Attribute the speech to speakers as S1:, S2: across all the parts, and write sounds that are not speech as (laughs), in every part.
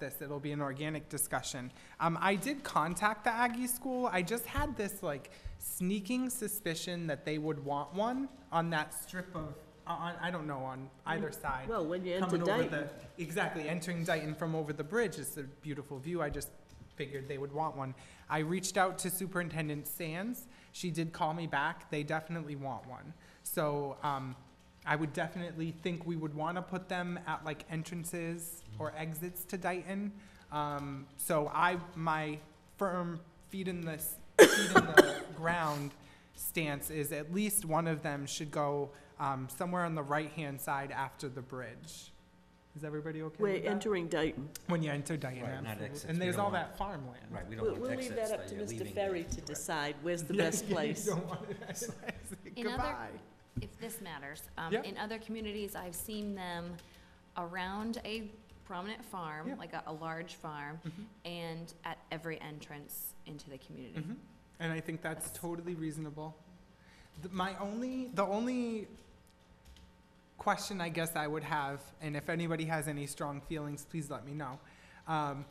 S1: this. It'll be an organic discussion. Um, I did contact the Aggie School. I just had this like sneaking suspicion that they would want one on that strip of, on, I don't know, on either side.
S2: Well, when you enter
S1: Coming over
S2: Dayton,
S1: the- Exactly, entering Dayton from over the bridge is a beautiful view. I just figured they would want one. I reached out to Superintendent Sands. She did call me back. They definitely want one. So, um, I would definitely think we would want to put them at like entrances or exits to Dayton. Um, so I, my firm feet in the, s- feet in the (laughs) ground stance is at least one of them should go, um, somewhere on the right-hand side after the bridge. Is everybody okay
S2: we're
S1: with that?
S2: entering Dayton.
S1: When you enter Dayton,
S3: Right, not
S1: absolutely.
S3: exits.
S1: And
S3: We
S1: there's
S3: don't
S1: all
S3: want-
S1: that farmland.
S3: Right, we
S2: We'll,
S3: don't want
S2: we'll
S3: exits
S2: leave that up
S3: that
S2: to
S3: you're leaving.
S2: Mr. Ferry to
S3: Correct.
S2: decide where's
S1: (laughs)
S2: the
S1: Yeah,
S2: best
S1: you
S2: place.
S1: don't want it (laughs) as-
S4: In other-
S1: Goodbye.
S4: if this matters. Um,
S1: Yeah.
S4: In other communities, I've seen them around a prominent
S1: Yeah.
S4: farm, like a, a large farm,
S1: Mhm.
S4: and at every entrance into the community.
S1: Mhm. And I think that's totally reasonable. Th- My only, the only question I guess I would have, and if anybody has any strong feelings, please let me know. Um,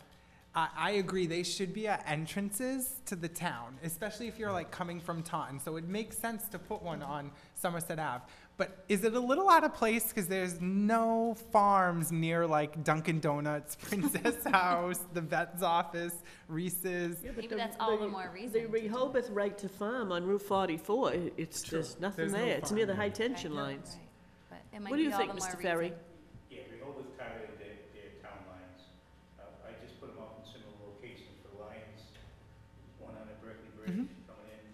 S1: I, I agree, they should be at entrances to the town, especially if you're like coming from Taunton. So it makes sense to put one on Somerset Ave. But is it a little out of place, because there's no farms near like Dunkin' Donuts, (laughs) Princess House, the vet's office, Reese's?
S2: Yeah, but
S4: Maybe
S2: the-
S4: that's all the
S2: the-
S4: more
S2: The
S4: reason.
S2: Rehoboth Right to Farm on Route forty-four, i- it's,
S1: True.
S2: there's nothing
S1: There's no
S2: there, it's near the
S1: farm.
S2: high tension
S4: Right.
S2: lines.
S4: Right. But it might
S2: What do
S4: be
S2: you
S4: all
S2: think,
S4: the more
S2: Mr. Ferry?
S4: reason.
S5: Yeah, we always targeted their, their town lines. Uh, I just put them up in similar locations for Lions, one on the Berkeley Bridge coming in,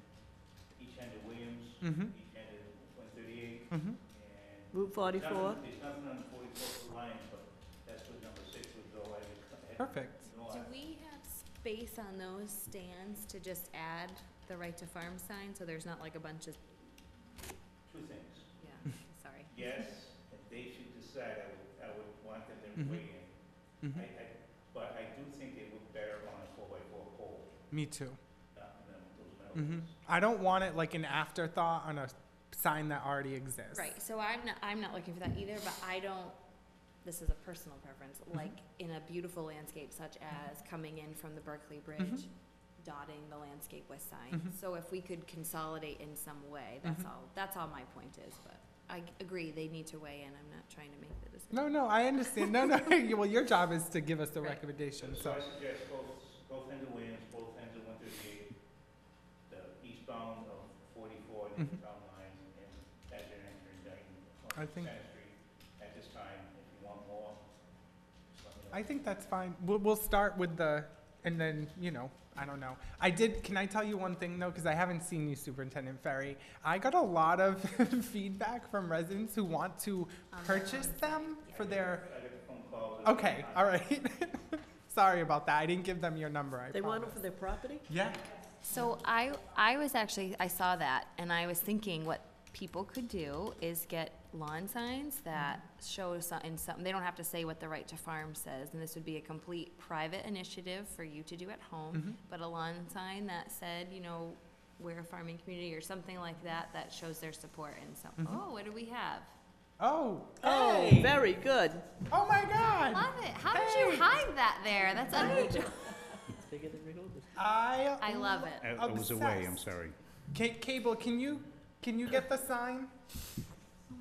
S5: each end of Williams,
S1: Mm-hmm,
S5: each end of one thirty-eight,
S1: mm-hmm.
S5: and.
S2: Route forty-four,
S5: nothing- There's nothing on forty-four for Lions, but that's where number six would go, I would cut ahead.
S1: Perfect.
S5: No,
S4: Do
S5: I-
S4: we have space on those stands to just add the right to farm sign, so there's not like a bunch of,
S5: Two things.
S1: (laughs)
S4: yeah, sorry.
S5: Yes, if they should decide, I would, I would want them to
S1: Mhm.
S5: weigh in.
S1: Mhm.
S5: I, I, but I do think they look better on a four-by-four pole,
S1: Me too.
S5: not than those metal
S1: hmm
S5: ones.
S1: I don't want it like an afterthought on a sign that already exists.
S4: Right, so I'm not, I'm not looking for that either, but I don't, this is a personal preference,
S1: Mm-hmm.
S4: like in a beautiful landscape such as coming in from the Berkeley Bridge,
S1: Mm-hmm.
S4: dotting the landscape with signs.
S1: Mhm.
S4: So if we could consolidate in some way, that's
S1: Mhm.
S4: all, that's all my point is, but I g- agree, they need to weigh in, I'm not trying to make the decision.
S1: No, no, I understand. No, (laughs) no. well, your job is to give us the
S4: Right.
S1: recommendation.
S5: So
S1: So,
S5: I suggest both, both ends of Williams, both ends of one thirty-eight, the eastbound of forty-four, the
S1: Mhm.
S5: town line, and as you're entering Dayton,
S1: I
S5: on
S1: think-
S5: Center Street, at this time, if you want more, just let me know.
S1: I think that's fine. We'll, we'll start with the, and then, you know, I don't know. I did, can I tell you one thing though? Because I haven't seen you, Superintendent Ferry. I got a lot of (laughs) feedback from residents who want to
S4: On their
S1: purchase
S4: own
S1: them
S4: site, yeah.
S1: for their,
S5: I got a phone call. that-
S1: okay, all right. (laughs) Sorry about that. I didn't give them your number, I
S2: they want it
S1: promise.
S2: for their property?
S1: Yeah.
S4: So I, I was actually, I saw that, and I was thinking what people could do is get lawn signs that show some, in some, they don't have to say what the right to farm says, and this would be a complete private initiative for you to do at
S1: Mhm.
S4: home, but a lawn sign that said, you know, we're a farming community or something like that, that shows their support and some,
S1: Mhm.
S4: oh, what do we have?
S1: Oh.
S2: Oh,
S1: hey.
S2: very good.
S1: Oh my God!
S4: Love it, how did
S1: Hey.
S4: you hide that there? That's unusual.
S2: It's bigger than Rehoboth.
S1: I
S4: I love Uh, it.
S1: I was away, I'm
S5: sorry.
S1: Ca- Cable, can you can you get the sign?
S4: Oh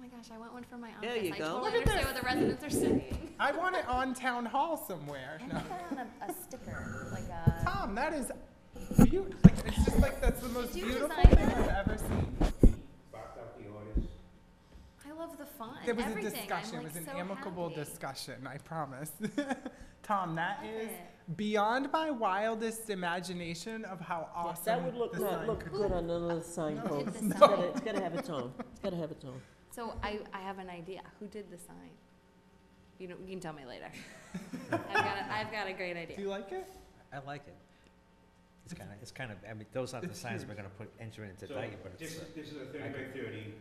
S4: my gosh, I want one for my office.
S2: There you go.
S4: I totally
S1: Look at
S4: understand what the residents are saying.
S1: I want it on town hall somewhere.
S4: And
S1: No.
S4: put it on a, a sticker, like a.
S1: Tom, that is beautiful. Like, it's just like that's the most
S4: Did you
S1: beautiful
S4: design
S1: thing
S4: that?
S1: I've ever seen.
S5: Backed out the orders.
S4: I love the fun.
S1: There was
S4: everything.
S1: a discussion.
S4: I'm,
S1: it was
S4: like,
S1: an
S4: so
S1: amicable
S4: happy.
S1: discussion. I promise. (laughs) Tom, that
S4: Love
S1: is
S4: it.
S1: beyond my wildest imagination of how
S2: Yes,
S1: awesome
S2: That would look,
S1: the
S2: not
S1: sign
S2: look
S1: could
S2: good on another signpost.
S4: Look at the
S2: It's
S4: sign.
S2: gotta, it's gotta have its own, it's gotta have its own.
S4: So I, I have an idea. Who did the sign? You know, you can tell
S1: (laughs)
S4: me later. I've got a, I've got a great
S1: Do
S4: idea.
S1: you like it?
S3: I like it. It's kind of, it's kind of, I mean, those aren't the
S1: It's
S3: signs
S1: huge.
S3: we're gonna put, enter into
S5: So
S3: Dayton, but it's,
S5: This,
S3: uh,
S5: is- this is a thirty by thirty,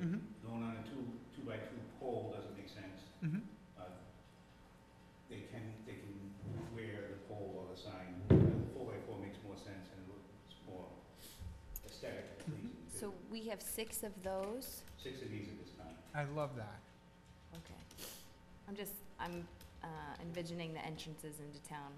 S5: going on a two, two by two pole doesn't make sense.
S1: Mm-hmm.
S5: uh, they can, they can wear the pole or the sign. The Four by four makes more sense and it looks more aesthetic, pleasing. to-
S4: So we have six of those.
S5: Six of these at this time.
S1: I love that.
S4: Okay. I'm just I'm uh, envisioning the entrances into town